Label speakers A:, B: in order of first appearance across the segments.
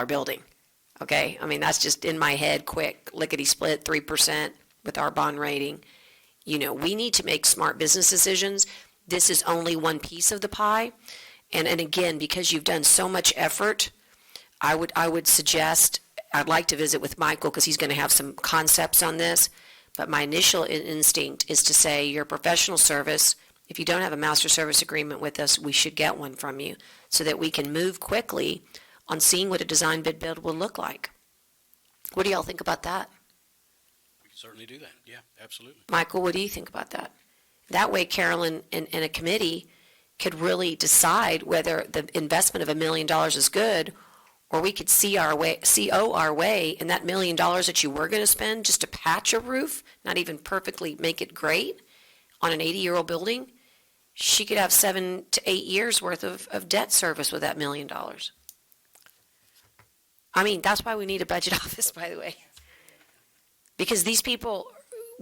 A: our building. Okay, I mean, that's just in my head, quick, lickety-split, three percent with our bond rating. You know, we need to make smart business decisions. This is only one piece of the pie. And, and again, because you've done so much effort, I would, I would suggest, I'd like to visit with Michael, because he's gonna have some concepts on this. But my initial in- instinct is to say, your professional service, if you don't have a master service agreement with us, we should get one from you, so that we can move quickly on seeing what a design bid build will look like. What do y'all think about that?
B: We can certainly do that. Yeah, absolutely.
A: Michael, what do you think about that? That way Carolyn and, and a committee could really decide whether the investment of a million dollars is good, or we could see our way, CO our way, and that million dollars that you were gonna spend just to patch a roof, not even perfectly make it great, on an eighty-year-old building, she could have seven to eight years worth of, of debt service with that million dollars. I mean, that's why we need a budget office, by the way. Because these people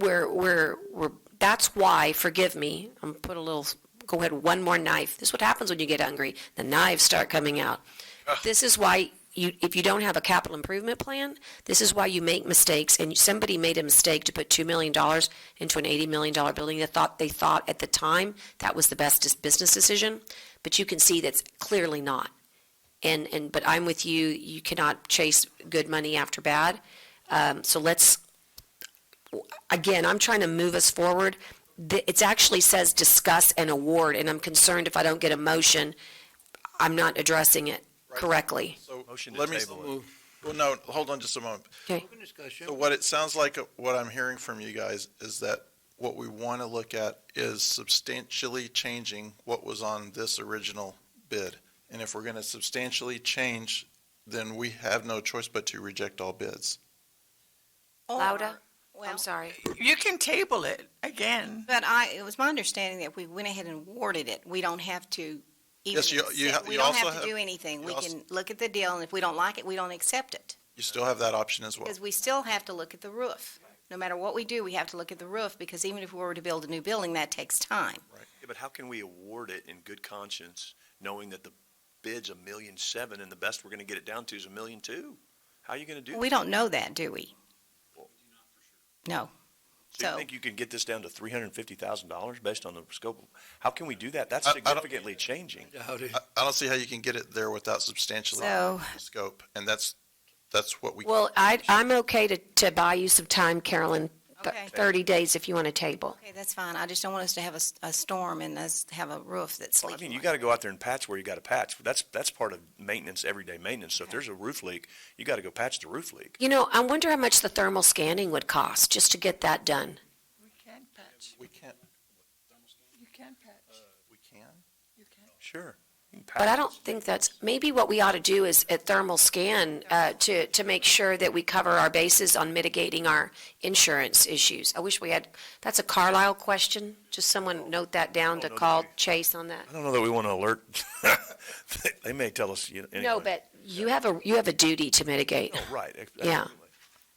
A: we're, we're, we're, that's why, forgive me, I'm gonna put a little, go ahead, one more knife. This is what happens when you get hungry. The knives start coming out. This is why you, if you don't have a capital improvement plan, this is why you make mistakes. And somebody made a mistake to put $2 million into an $80 million building. They thought, they thought at the time that was the best dis- business decision, but you can see that's clearly not. And, and, but I'm with you, you cannot chase good money after bad. Um, so let's, again, I'm trying to move us forward. The- It actually says discuss and award, and I'm concerned if I don't get a motion, I'm not addressing it correctly.
C: So
D: Motion to
C: let me,
D: table
C: well, no, hold on just a moment.
A: Okay,
C: So what it sounds like, uh, what I'm hearing from you guys is that what we want to look at is substantially changing what was on this original bid. And if we're going to substantially change, then we have no choice but to reject all bids.
A: Lauda,
E: Well,
A: I'm sorry.
F: You can table it again.
E: But I, it was my understanding that if we went ahead and awarded it, we don't have to even,
C: Yes, you- you ha-
E: accept- we
C: you
E: don't
C: also
E: have
C: have-
E: to do anything.
C: you
E: We
C: also-
E: can look at the deal, and if we don't like it, we don't accept it.
C: You still have that option as well.
E: Because we still have to look at the roof. No matter what we do, we have to look at the roof, because even if we were to build a new building, that takes time.
D: Yeah, but how can we award it in good conscience, knowing that the bid's a million seven and the best we're gonna get it down to is a million two? How are you gonna do that?
E: We don't know that, do we? No.
D: So you
E: so-
D: think you can get this down to three hundred and fifty thousand dollars based on the scope? of- How can we do that? That's
C: I- I don't-
D: significantly changing.
C: I, I don't see how you can get it there without substantially
E: So-
C: changing the scope. And that's, that's what we.
A: Well, I, I'm okay to, to buy you some time, Carolyn, th-
E: Okay.
A: 30 days if you want to table.
E: Okay, that's fine. I just don't want us to have a, s- a storm and us have a roof that's
D: Well, I
E: leaking.
D: mean, you
E: like-
D: gotta go out there and patch where you gotta patch. That's, that's part of maintenance, everyday maintenance. So if there's a roof leak, you gotta go patch the roof leak.
A: You know, I wonder how much the thermal scanning would cost, just to get that done.
F: We can patch.
C: We can't, Uh,
F: You can patch.
C: we can?
F: You can.
D: Sure. you can
A: But I
D: patch.
A: don't think that's, maybe what we ought to do is a thermal scan uh, to, to make sure that we cover our bases on mitigating our insurance issues. I wish we had, that's a Carlisle question. Just someone note that down to
D: no,
A: call
D: no.
A: Chase on that.
D: I don't know that we wanna alert. They- They may tell us, you know, anyway.
A: No, but you have a, you have a duty to mitigate
D: No, right. ex-
A: Yeah.
D: absolutely.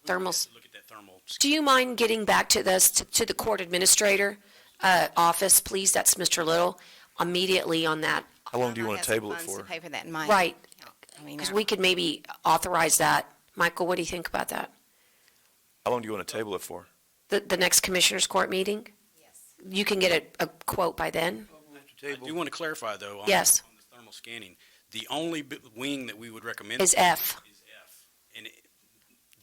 A: thermals.
B: Look at that thermal.
A: Do you mind getting back to this, to- to the court administrator uh, office, please? That's Mr. Little, immediately on that.
D: How long do
E: I
D: you want
E: have
D: to
E: some
D: table it
E: funds to
D: for?
E: Pay for that in my.
A: Right,
E: account. I mean,
A: because
E: I-
A: we could maybe authorize that. Michael, what do you think about that?
D: How long do you want to table it for?
A: The, the next commissioners' court meeting? You can get a, a quote by then?
B: I do want to clarify, though. on-
A: Yes.
B: On the thermal scanning, the only b- wing that we would recommend.
A: Is F.
B: Is F. And it-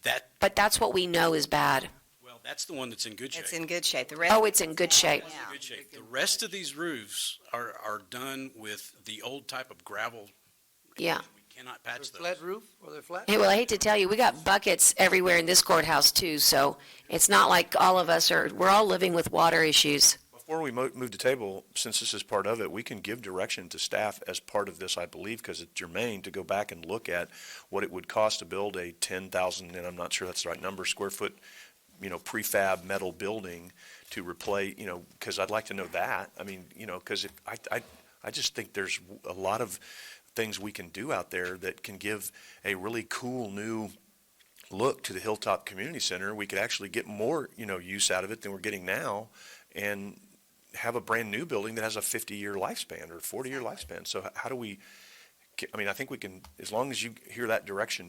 B: that,
A: But that's what we know is bad.
B: well, that's the one that's in good shape.
E: It's in good shape. The rest.
A: Oh, it's in good shape.
E: Yeah.
B: Good shape. The rest of these roofs are, are done with the old type of gravel.
A: Yeah.
B: We cannot patch those.
G: Flat roof, or they're flat?
A: Hey, well, I hate to tell you, we got buckets everywhere in this courthouse too, so it's not like all of us are, we're all living with water issues.
D: Before we mo- move to table, since this is part of it, we can give direction to staff as part of this, I believe, because it's germane, to go back and look at what it would cost to build a ten thousand, and I'm not sure that's the right number, square foot, you know, prefab metal building to replace, you know, because I'd like to know that. I mean, you know, because if, I, I, I just think there's a lot of things we can do out there that can give a really cool new look to the Hilltop Community Center. We could actually get more, you know, use out of it than we're getting now and have a brand new building that has a 50-year lifespan or 40-year lifespan. So h- how do we, I mean, I think we can, as long as you hear that direction